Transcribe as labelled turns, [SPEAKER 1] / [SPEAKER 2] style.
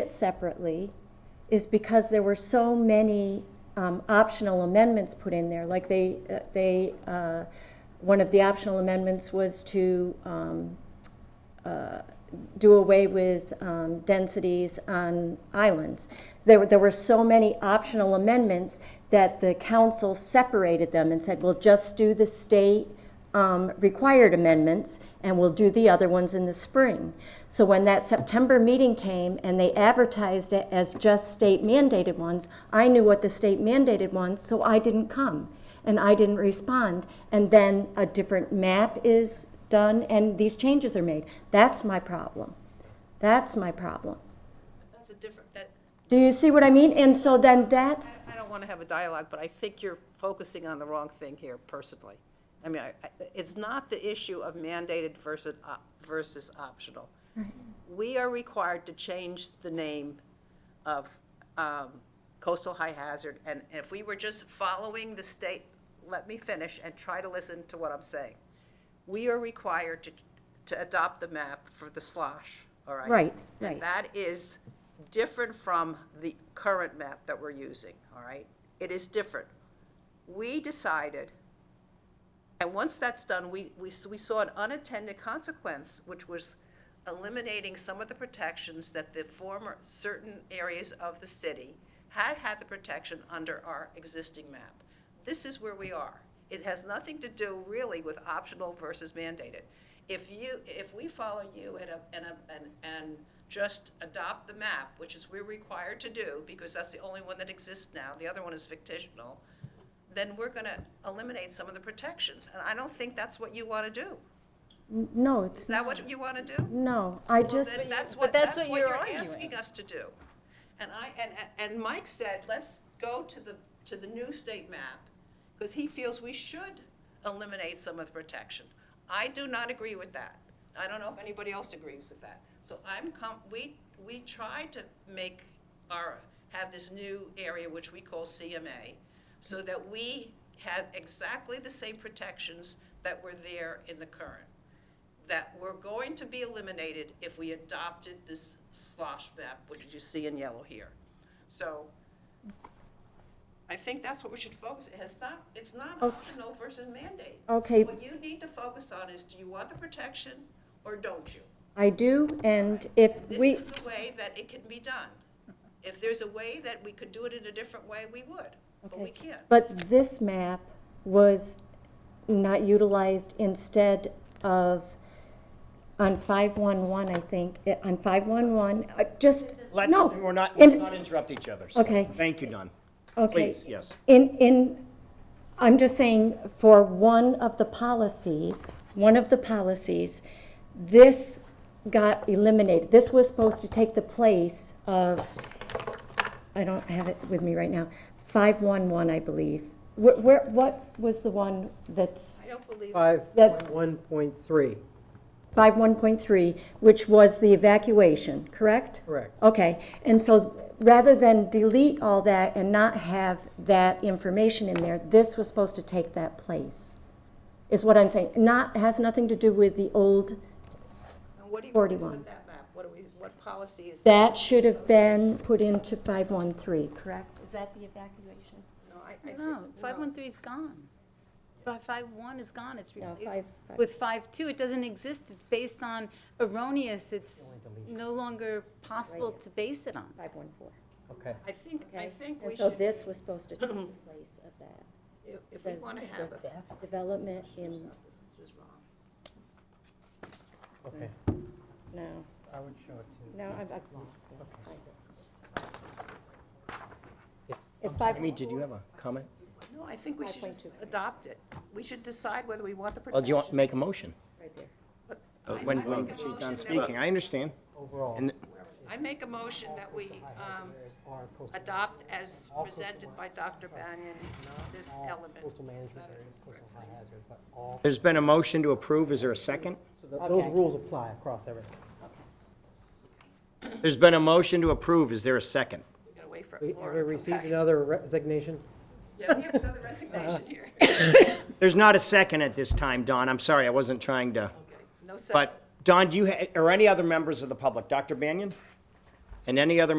[SPEAKER 1] it separately is because there were so many um, optional amendments put in there. Like they, uh, they, uh, one of the optional amendments was to um, uh, do away with um, densities on islands. There were, there were so many optional amendments that the council separated them and said, well, just do the state um, required amendments, and we'll do the other ones in the spring. So when that September meeting came and they advertised it as just state mandated ones, I knew what the state mandated ones, so I didn't come and I didn't respond. And then a different map is done and these changes are made. That's my problem. That's my problem.
[SPEAKER 2] That's a different, that,
[SPEAKER 1] Do you see what I mean? And so then that's,
[SPEAKER 2] I don't want to have a dialogue, but I think you're focusing on the wrong thing here personally. I mean, I- I- it's not the issue of mandated versus, op- versus optional. We are required to change the name of um, coastal high hazard, and if we were just following the state, let me finish and try to listen to what I'm saying. We are required to, to adopt the map for the slosh, all right?
[SPEAKER 1] Right,
[SPEAKER 2] And
[SPEAKER 1] right.
[SPEAKER 2] that is different from the current map that we're using, all right? It is different. We decided, and once that's done, we, we, s- we saw an unintended consequence, which was eliminating some of the protections that the former, certain areas of the city had had the protection under our existing map. This is where we are. It has nothing to do really with optional versus mandated. If you, if we follow you and, a- and, a- and, and just adopt the map, which is we're required to do, because that's the only one that exists now, the other one is fictitional, then we're going to eliminate some of the protections. And I don't think that's what you want to do.
[SPEAKER 1] no,
[SPEAKER 2] Is
[SPEAKER 1] it's,
[SPEAKER 2] that what you want to do?
[SPEAKER 1] no, I just,
[SPEAKER 2] Then that's
[SPEAKER 3] but
[SPEAKER 2] what,
[SPEAKER 3] that's
[SPEAKER 2] that's
[SPEAKER 3] what
[SPEAKER 2] what
[SPEAKER 3] you're
[SPEAKER 2] you're
[SPEAKER 3] arguing.
[SPEAKER 2] asking us to do. And I, and, and and Mike said, let's go to the, to the new state map, because he feels we should eliminate some of the protection. I do not agree with that. I don't know if anybody else agrees with that. So I'm com, we, we tried to make our, have this new area which we call CMA, so that we have exactly the same protections that were there in the current that were going to be eliminated if we adopted this slosh map, which you see in yellow here. So I think that's what we should focus, it has not, it's not optional versus mandate.
[SPEAKER 1] Oh. okay,
[SPEAKER 2] What you need to focus on is, do you want the protection or don't you?
[SPEAKER 1] I do. And if
[SPEAKER 2] This
[SPEAKER 1] we,
[SPEAKER 2] is the way that it can be done. If there's a way that we could do it in a different way, we would, but we
[SPEAKER 1] Okay.
[SPEAKER 2] can't.
[SPEAKER 1] But this map was not utilized instead of, on 511, I think, eh, on 511, uh, just,
[SPEAKER 4] Let's,
[SPEAKER 1] no.
[SPEAKER 4] we're not,
[SPEAKER 1] in-
[SPEAKER 4] let's not interrupt each other. so
[SPEAKER 1] Okay.
[SPEAKER 4] Thank you, Don.
[SPEAKER 1] Okay.
[SPEAKER 4] Please, yes.
[SPEAKER 1] In, in, I'm just saying, for one of the policies, one of the policies, this got eliminated. This was supposed to take the place of, I don't have it with me right now, 511, I believe. Where- Where, what was the one that's,
[SPEAKER 2] I don't believe,
[SPEAKER 1] That-
[SPEAKER 5] 5.1.3,
[SPEAKER 1] 51.3, which was the evacuation, correct?
[SPEAKER 5] correct.
[SPEAKER 1] Okay, and so rather than delete all that and not have that information in there, this was supposed to take that place, is what I'm saying. Not, has nothing to do with the old,
[SPEAKER 2] and what do you want to do
[SPEAKER 1] 41.
[SPEAKER 2] with that map? What do we, what policy is?
[SPEAKER 1] that should have been put into 513, correct? Is that the evacuation?
[SPEAKER 2] No, I- I think-
[SPEAKER 3] No, 513 is gone. Five five one is gone, it's replaced
[SPEAKER 1] five- five-
[SPEAKER 3] with five two. It doesn't exist, it's based on erroneous, it's no longer possible to base it on.
[SPEAKER 1] 514.
[SPEAKER 5] Okay.
[SPEAKER 2] I think, I think we
[SPEAKER 1] And so
[SPEAKER 2] should,
[SPEAKER 1] this was supposed to take the place of that.
[SPEAKER 2] if- if we
[SPEAKER 1] Says
[SPEAKER 2] want to have a
[SPEAKER 1] Development in,
[SPEAKER 2] This is wrong.
[SPEAKER 5] Okay.
[SPEAKER 1] no,
[SPEAKER 5] I would show it to.
[SPEAKER 1] no, I've, I've lost it. It's 5.
[SPEAKER 4] Amy, did you have a comment?
[SPEAKER 2] No, I think we should just adopt it. We should decide whether we want the
[SPEAKER 4] Well,
[SPEAKER 2] protection.
[SPEAKER 4] do you want to make a motion?
[SPEAKER 1] Right there.
[SPEAKER 4] Uh, When,
[SPEAKER 2] I
[SPEAKER 4] when
[SPEAKER 2] make a
[SPEAKER 4] she's
[SPEAKER 2] motion
[SPEAKER 4] done
[SPEAKER 2] that-
[SPEAKER 4] speaking, I understand.
[SPEAKER 5] Overall.
[SPEAKER 4] And
[SPEAKER 2] I make a motion that we um, adopt as presented by Dr. Banyan, this element.
[SPEAKER 5] Coastal management areas, coastal high hazard, but all,
[SPEAKER 4] there's been a motion to approve. Is there a second?
[SPEAKER 5] so th- those rules apply across everything.
[SPEAKER 4] There's been a motion to approve. Is there a second?
[SPEAKER 2] We're going to wait for
[SPEAKER 5] We- Have we
[SPEAKER 2] Laura to come
[SPEAKER 5] received
[SPEAKER 2] back.
[SPEAKER 5] another resignation?
[SPEAKER 2] Yeah, we have another resignation here.
[SPEAKER 4] There's not a second at this time, Don. I'm sorry, I wasn't trying to.
[SPEAKER 2] No second.
[SPEAKER 4] But, Don, do you, ha- or any other members of the public? Dr. Banyan? and any other